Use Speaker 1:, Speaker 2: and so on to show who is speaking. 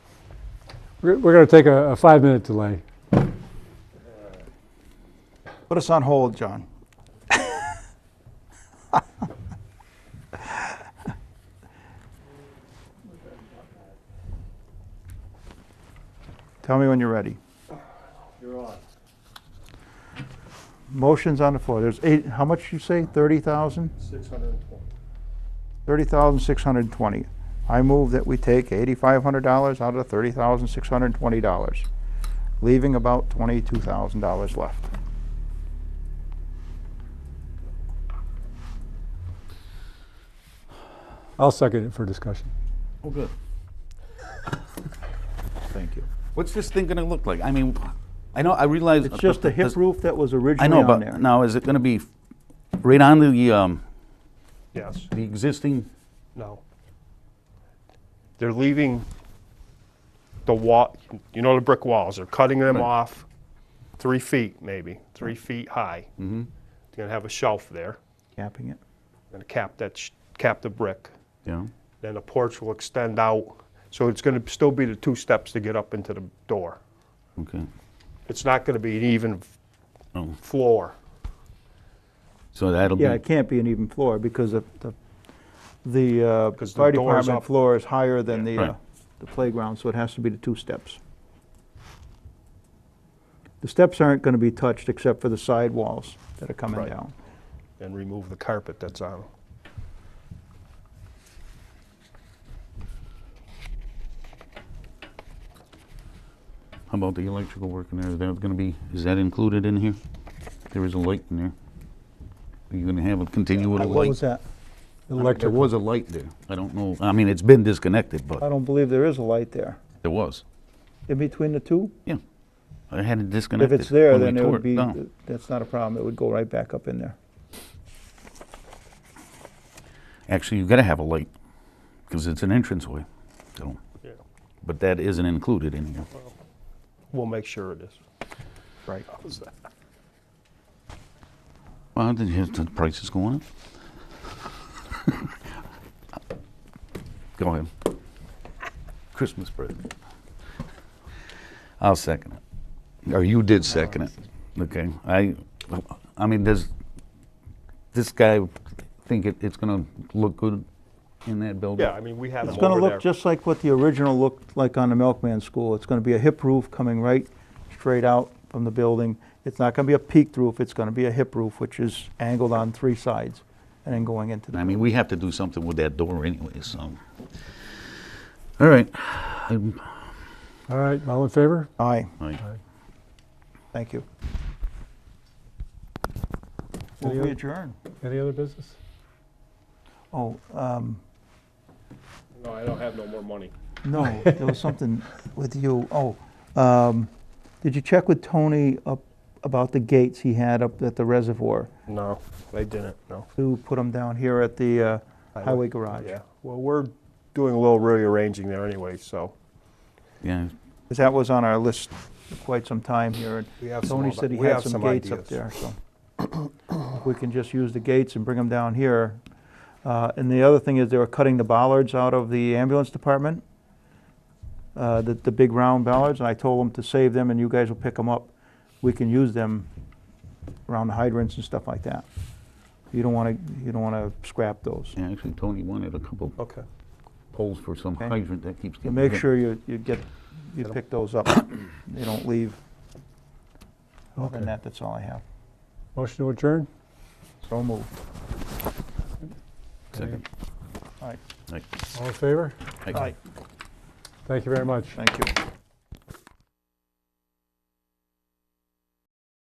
Speaker 1: We're going to take a a five-minute delay.
Speaker 2: Put us on hold, John. Tell me when you're ready.
Speaker 1: You're on.
Speaker 2: Motion's on the floor. There's eight, how much you say? 30,000?
Speaker 1: 620.
Speaker 2: 30,620. I move that we take $8,500 out of $30,620, leaving about $22,000 left.
Speaker 1: I'll second it for discussion.
Speaker 3: Oh, good.
Speaker 2: Thank you.
Speaker 3: What's this thing gonna look like? I mean, I know, I realize.
Speaker 2: It's just the hip roof that was
Speaker 3: I
Speaker 2: originally
Speaker 3: know,
Speaker 2: on
Speaker 3: but
Speaker 2: there.
Speaker 3: now is it gonna be right on the, um,
Speaker 4: Yes,
Speaker 3: the existing?
Speaker 4: no. They're leaving the wall, you know the brick walls, they're cutting them off three feet maybe, three feet high. Mm-hmm. They're gonna have a shelf there,
Speaker 2: Capping it.
Speaker 4: gonna cap that, sh- cap the brick.
Speaker 3: Yeah.
Speaker 4: Then the porch will extend out, so it's gonna still be the two steps to get up into the door.
Speaker 3: Okay.
Speaker 4: It's not gonna be an even f-
Speaker 3: Oh.
Speaker 4: floor.
Speaker 3: So that'll be.
Speaker 2: Yeah, it can't be an even floor because the, the, the uh,
Speaker 4: 'Cause the
Speaker 2: fire
Speaker 4: door's
Speaker 2: department
Speaker 4: up.
Speaker 2: floor is higher than the,
Speaker 3: Right.
Speaker 2: uh, the playground, so it has to be the two steps. The steps aren't gonna be touched except for the side walls that are coming
Speaker 4: Right.
Speaker 2: down.
Speaker 4: and remove the carpet that's on them.
Speaker 3: How about the electrical work in there? Is that gonna be, is that included in here? There is a light in there. Are you gonna have a continual
Speaker 2: What was
Speaker 3: light?
Speaker 2: that?
Speaker 3: There
Speaker 1: Electric,
Speaker 3: was a light there. I don't know, I mean, it's been disconnected,
Speaker 2: I
Speaker 3: but
Speaker 2: don't believe there is a light there.
Speaker 3: there was.
Speaker 2: In between the two?
Speaker 3: Yeah. I had it
Speaker 2: If
Speaker 3: disconnected.
Speaker 2: it's there,
Speaker 3: when we
Speaker 2: then it
Speaker 3: tore
Speaker 2: would be,
Speaker 3: down.
Speaker 2: that's not a problem. It would go right back up in there.
Speaker 3: Actually, you gotta have a light, because it's an entranceway, so.
Speaker 4: Yeah.
Speaker 3: But that isn't included in here.
Speaker 4: We'll make sure it is.
Speaker 2: Right.
Speaker 4: How's that?
Speaker 3: Well, then you- the price is going up. Go ahead. Christmas present. I'll second it. Or you did second it. Okay. I, I mean, does this guy think it, it's gonna look good in that building?
Speaker 4: Yeah, I mean, we have
Speaker 2: It's
Speaker 4: them
Speaker 2: gonna
Speaker 4: over
Speaker 2: look
Speaker 4: there.
Speaker 2: just like what the original looked like on the Milkman School. It's gonna be a hip roof coming right straight out from the building. It's not gonna be a peaked roof, it's gonna be a hip roof, which is angled on three sides and then going into
Speaker 3: I
Speaker 2: the,
Speaker 3: mean, we have to do something with that door anyway, so. All right. I'm-
Speaker 1: all right, all in favor?
Speaker 2: aye,
Speaker 3: I-
Speaker 2: thank you.
Speaker 1: Any
Speaker 2: Will
Speaker 1: oth-
Speaker 2: we adjourn?
Speaker 1: Any other business?
Speaker 2: Oh, um,
Speaker 4: No, I don't have no more money.
Speaker 2: no, there was something with you, oh, um, did you check with Tony up about the gates he had up at the reservoir?
Speaker 4: No, they didn't, no.
Speaker 2: Who put them down here at the uh,
Speaker 4: Highway.
Speaker 2: highway garage?
Speaker 4: Yeah, well, we're doing a little rearranging there anyway, so.
Speaker 3: Yeah,
Speaker 2: Because that was on our list for quite some time here, and
Speaker 4: We have some
Speaker 2: Tony
Speaker 4: of-
Speaker 2: said he
Speaker 4: we
Speaker 2: had
Speaker 4: have
Speaker 2: some
Speaker 4: some
Speaker 2: gates up
Speaker 4: ideas.
Speaker 2: there, so. If we can just use the gates and bring them down here. Uh, And the other thing is they were cutting the bollards out of the ambulance department, uh, the, the big round bollards, and I told them to save them and you guys will pick them up. We can use them around the hydrants and stuff like that. You don't want to, you don't want to scrap those.
Speaker 3: yeah, actually, Tony wanted a couple
Speaker 4: Okay.
Speaker 3: poles for some
Speaker 2: Okay.
Speaker 3: hydrant that keeps
Speaker 2: So
Speaker 3: getting
Speaker 2: make
Speaker 3: hit.
Speaker 2: sure you, you get, you pick those up, they don't leave. Other
Speaker 1: Okay.
Speaker 2: than that, that's all I have.
Speaker 1: Motion to adjourn?
Speaker 2: So moved.
Speaker 3: Second.
Speaker 2: All right.
Speaker 3: Like,
Speaker 1: All in favor?
Speaker 3: like-
Speaker 2: Aye.
Speaker 1: Thank you very much.
Speaker 2: Thank you.